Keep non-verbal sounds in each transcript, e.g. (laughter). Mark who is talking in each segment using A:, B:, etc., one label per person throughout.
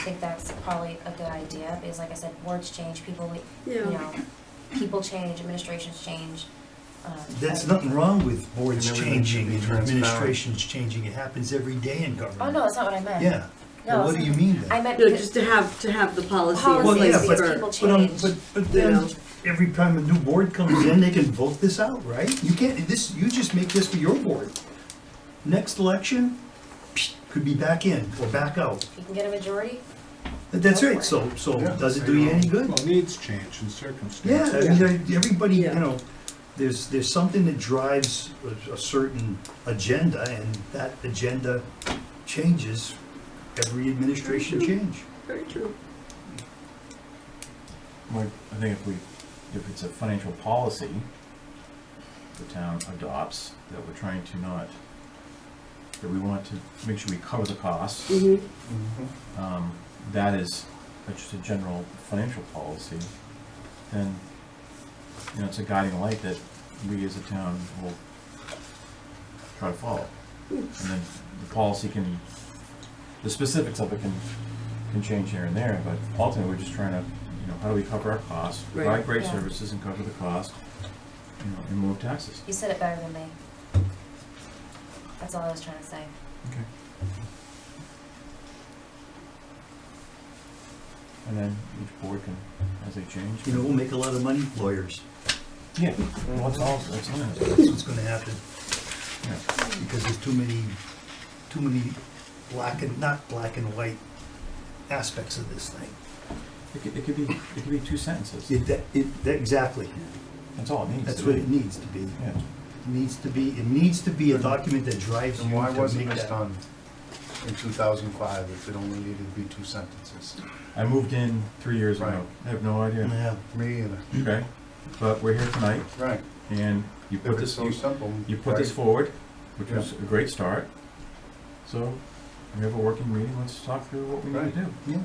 A: think that's probably a good idea, because like I said, words change, people, we- you
B: Yeah.
A: know, people change, administrations change. um,
C: That's nothing wrong with
D: And
C: boards
D: everything should
C: changing
D: be
C: and
D: transparent.
C: administrations changing. It happens every day in government.
A: Oh, no, that's not what I meant.
C: Yeah.
A: No,
C: Well, what do
A: it's-
C: you mean
A: I
C: then?
A: meant
B: No,
A: because
B: just to have, to have the policy in
A: Policy,
C: Well, yeah,
B: place
C: but-
B: for-
A: people
C: But, um,
A: change.
C: but, but
B: You
C: then,
B: know.
C: every time a new board comes in, they can vote this out, right? You can't, this, you just make this for your board. Next election, psh, could be back in or back out.
A: if you can get a majority,
C: But That's
A: Go for
C: right,
A: it.
C: so, so
D: Yeah,
C: does it
D: they
C: do you
D: don't-
C: any good?
E: Well, needs change and
C: Yeah,
E: circumstances.
C: I mean,
B: Yeah.
C: there- everybody, you
B: Yeah.
C: know, there's, there's something that drives a, a certain agenda, and that agenda changes every administration change.
B: Very true.
D: Well, I think if we, if it's a financial policy the town adopts, that we're trying to not, that we want to make sure we cover the costs,
B: hmm
D: um, that is, that's just a general financial policy, then, you know, it's a guiding light that we as a town will try to follow. And then the policy can, the specifics of it can, can change here and there, but ultimately, we're just trying to, you know, how do we cover our costs, provide
B: Right.
D: great
A: Yeah.
D: services and cover the cost, you know, and move taxes.
A: you said it better than me. That's all I was trying to say.
D: Okay. And then each board can, as they change.
C: You know, we'll make a lot of money, lawyers,
D: Yeah, well, that's all, that's all,
C: that's what's gonna happen,
D: yeah.
C: because there's too many, too many black and, not black and white aspects of this thing.
D: It could, it could be, it could be two sentences,
C: It, that, it, that, exactly,
D: that's all it needs
C: that's
D: to
C: what
D: be.
C: it needs to be.
D: Yeah,
C: It Needs to be, it needs to be a document that drives you
E: And
C: to
E: why wasn't
C: make
E: this
C: that-
E: done in two thousand five if it only needed to be two sentences?
D: I moved in three years ago,
E: Right.
D: I have no idea,
C: Yeah.
E: Me either.
D: okay, but we're here tonight,
E: Right.
D: and you
E: If
D: put
E: it's
D: this,
E: so
D: you,
E: simple.
D: you put this
E: right.
D: forward, which was a great start. So, we have a working meeting, let's talk through what we need
E: Right.
D: to do.
C: Yeah.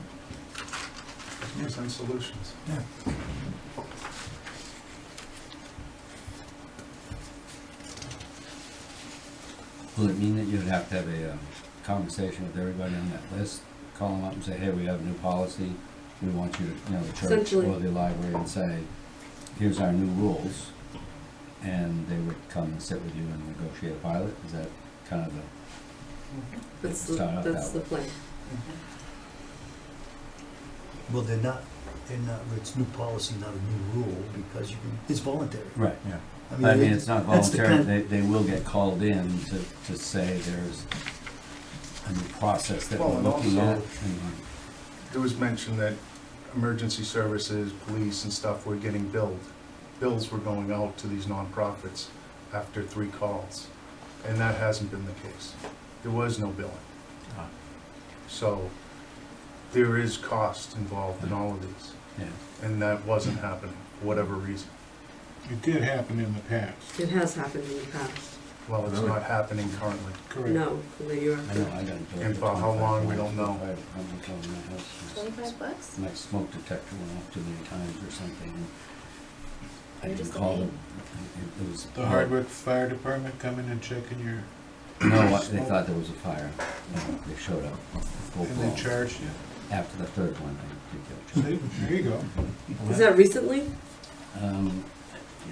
E: Present solutions.
D: Yeah.
F: Will it mean that you'd have to have a um, conversation with everybody on that list? Call them up and say, hey, we have a new policy, we want you to, you know, the church
B: Essentially.
F: or the library and say, here's our new rules. And they would come and sit with you and negotiate a pilot, is that kind of the,
B: That's the,
F: Start out that
B: that's the
F: way.
B: plan.
C: Well, they're not, they're not, it's new policy, not a new rule, because you can, it's voluntary.
F: right?
D: Yeah,
F: I mean, it's not
C: that's the
F: voluntary,
C: kind-
F: they, they will get called in to, to say there's a new process that
E: Well,
F: we're
E: and
F: looking at.
E: also-
F: and-
E: There was mention that emergency services, police and stuff were getting billed. Bills were going out to these nonprofits after three calls, and that hasn't been the case. There was no billing.
D: Ah,
E: So there is cost involved in all of these,
F: Yeah.
E: and that wasn't happening, for whatever reason.
G: It did happen in the past,
B: It has happened in the past.
E: Well, it's not happening currently.
G: correct?
B: No, in the year
F: I know,
B: after.
F: I got. a bill
E: And for how
F: $25
E: long, we don't know.
F: I- I'm not going to my house.
A: Twenty-five bucks?
F: My smoke detector went off too many times or something. and I
A: You're
F: didn't
A: just a
F: call
A: pain.
F: them. It- It was.
G: The Hardwick Fire Department coming and checking your,
F: No, I-
G: (laughs)
F: they thought there was a fire. No, They showed up. Full
G: and they
F: blown.
G: charged you.
F: After the third one, they did
G: See, there you go.
D: well,
B: Is
D: that-
B: that recently?
F: Um,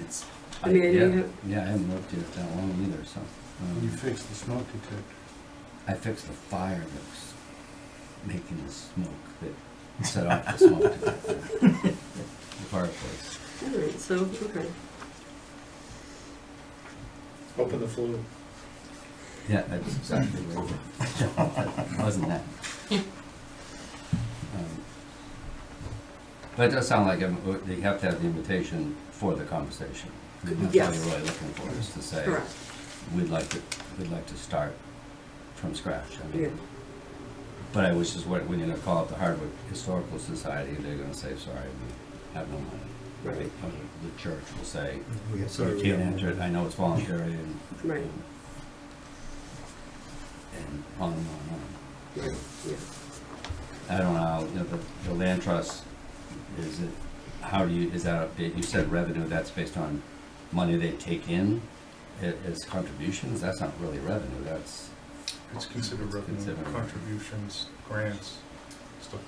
F: it's.
B: I mean, you
F: yeah,
B: have-
F: Yeah, I haven't lived here that long either, so. um,
G: You fixed the smoke detector.
F: I fixed the fire that was making the smoke that set off the smoke detector. (laughs) The fireplace.
B: All right, so, okay.
G: Open the flue.
F: Yeah, that's exactly what (laughs) it was. Wasn't that? Um, But it does sound like um, uh, you have to have the invitation for the conversation. I mean, That's
B: Yes.
F: what you're really looking for, is to say,
B: Correct,
F: we'd like to, we'd like to start from scratch. I
B: yeah.
F: mean, But I wish is what, when you're gonna call up the Hardwick Historical Society, they're gonna say, sorry, we have no money.
B: Right.
F: Or The church will say,
C: We have-
F: you can't enter it, I know it's voluntary and.
B: Right.
F: And on and on and
B: Right, yeah.
F: on. I don't know, how, you know, the, the land trust, is it, how do you, is that, a- you said revenue, that's based on money they take in a- as contributions? That's not really revenue, that's,
E: It's considered
F: It's
E: revenue
F: considered.
E: contributions, grants,